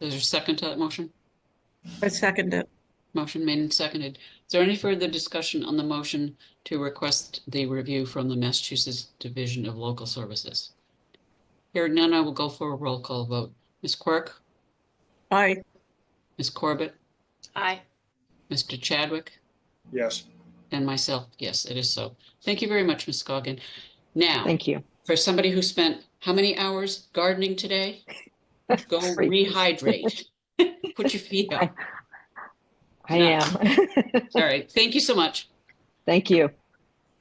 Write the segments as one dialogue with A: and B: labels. A: Is there a second to that motion?
B: I second it.
A: Motion made and seconded. Is there any further discussion on the motion to request the review from the Massachusetts Division of Local Services? Hearing none, I will go for a roll call vote. Ms. Quirk,
B: Aye.
A: Ms. Corbett,
C: Aye.
A: Mr. Chadwick,
D: Yes.
A: and myself. Yes, it is so. Thank you very much, Ms. Scoggin. Now,
E: Thank you.
A: for somebody who spent how many hours gardening today? Go
E: Great.
A: rehydrate. Put your feet up.
E: I
A: No.
E: am.
A: All right. Thank you so much.
E: Thank you.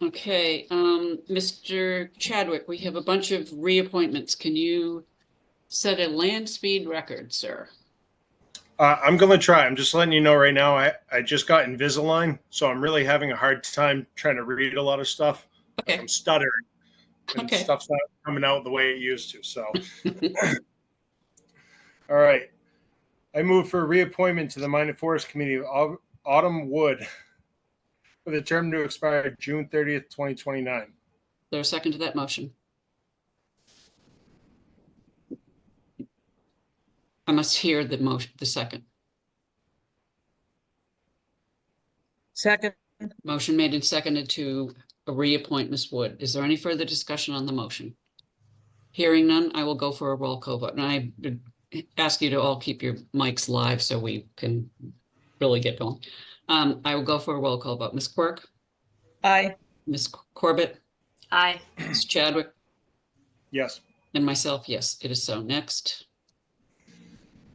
A: Okay, um, Mr. Chadwick, we have a bunch of reappointments. Can you set a land speed record, sir?
D: Uh, I'm going to try. I'm just letting you know right now, I, I just got Invisalign, so I'm really having a hard time trying to read a lot of stuff.
A: Okay,
D: I'm stuttering and
A: Okay.
D: stuff's not coming out the way it used to. So, all right. I move for reappointment to the Mine and Forest Committee of Au- Autumn Wood with a term to expire June 30th, 2029.
A: there's a second to that motion. I must hear the motion, the second.
B: Second.
A: Motion made and seconded to reappoint Ms. Wood. Is there any further discussion on the motion? Hearing none, I will go for a roll call vote. And I would ask you to all keep your mics live so we can really get going. Um, I will go for a roll call vote. Ms. Quirk,
B: Aye.
A: Ms. Corbett,
C: Aye.
A: Ms. Chadwick,
D: Yes.
A: and myself, yes, it is so. Next,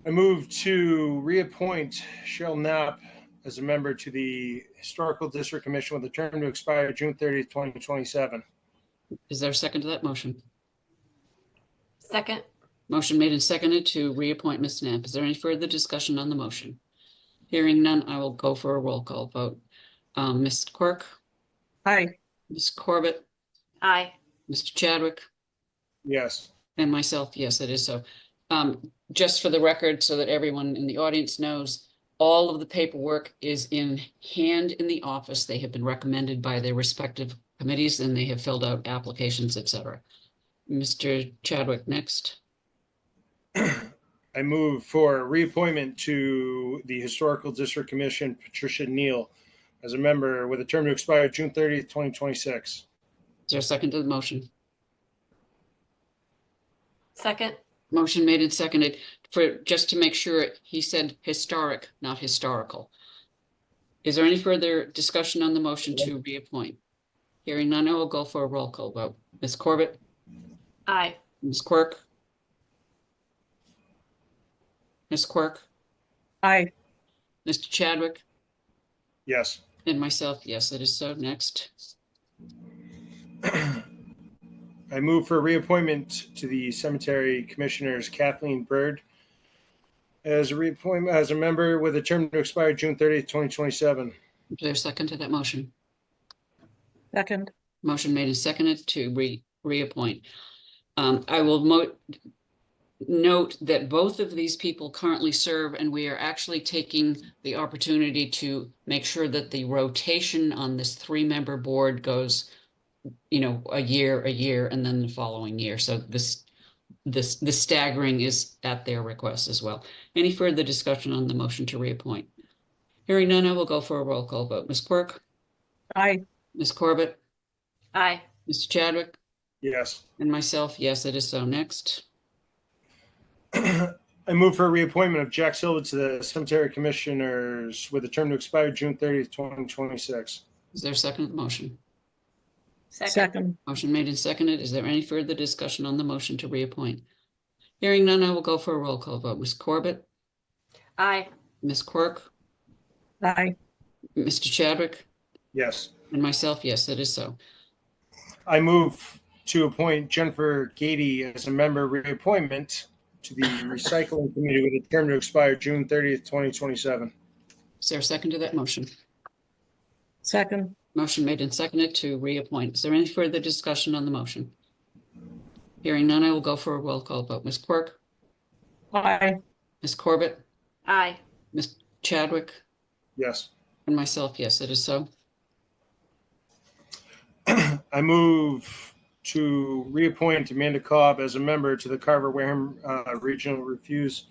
D: I move to reappoint Cheryl Knapp as a member to the Historical District Commission with a term to expire June 30th, 2027.
A: is there a second to that motion?
C: Second.
A: Motion made and seconded to reappoint Ms. Knapp. Is there any further discussion on the motion? Hearing none, I will go for a roll call vote. Um, Ms. Quirk,
B: Aye.
A: Ms. Corbett,
C: Aye.
A: Mr. Chadwick,
D: Yes.
A: and myself, yes, it is so. Um, just for the record, so that everyone in the audience knows, all of the paperwork is in hand in the office. They have been recommended by their respective committees and they have filled out applications, et cetera. Mr. Chadwick, next.
D: I move for reappointment to the Historical District Commission Patricia Neal as a member with a term to expire June 30th, 2026.
A: Is there a second to the motion?
C: Second.
A: Motion made and seconded for, just to make sure, he said historic, not historical. Is there any further discussion on the motion to reappoint? Hearing none, I will go for a roll call vote. Ms. Corbett,
C: Aye.
A: Ms. Quirk? Ms. Quirk,
B: Aye.
A: Mr. Chadwick,
D: Yes.
A: and myself, yes, it is so. Next,
D: I move for reappointment to the Cemetery Commissioners Kathleen Byrd as a reappointment, as a member with a term to expire June 30th, 2027.
A: is there a second to that motion?
B: Second.
A: Motion made and seconded to re, reappoint. Um, I will mo- note that both of these people currently serve and we are actually taking the opportunity to make sure that the rotation on this three-member board goes, you know, a year, a year, and then the following year. So this, this, the staggering is at their request as well. Any further discussion on the motion to reappoint? Hearing none, I will go for a roll call vote. Ms. Quirk,
B: Aye.
A: Ms. Corbett,
C: Aye.
A: Mr. Chadwick,
D: Yes.
A: and myself, yes, it is so. Next,
D: I move for reappointment of Jack Silva to the Cemetery Commissioners with a term to expire June 30th, 2026.
A: is there a second to the motion?
C: Second.
B: Second.
A: Motion made and seconded. Is there any further discussion on the motion to reappoint? Hearing none, I will go for a roll call vote. Ms. Corbett,
C: Aye.
A: Ms. Quirk,
B: Aye.
A: Mr. Chadwick,
D: Yes.
A: and myself, yes, it is so.
D: I move to appoint Jennifer Gady as a member reappointment to the Recycling Committee with a term to expire June 30th, 2027.
A: Is there a second to that motion?
B: Second.
A: Motion made and seconded to reappoint. Is there any further discussion on the motion? Hearing none, I will go for a roll call vote. Ms. Quirk,
B: Aye.
A: Ms. Corbett,
C: Aye.
A: Ms. Chadwick,
D: Yes.
A: and myself, yes, it is so.
D: I move to reappoint Amanda Cobb as a member to the Carver Wareham uh, Regional Refuse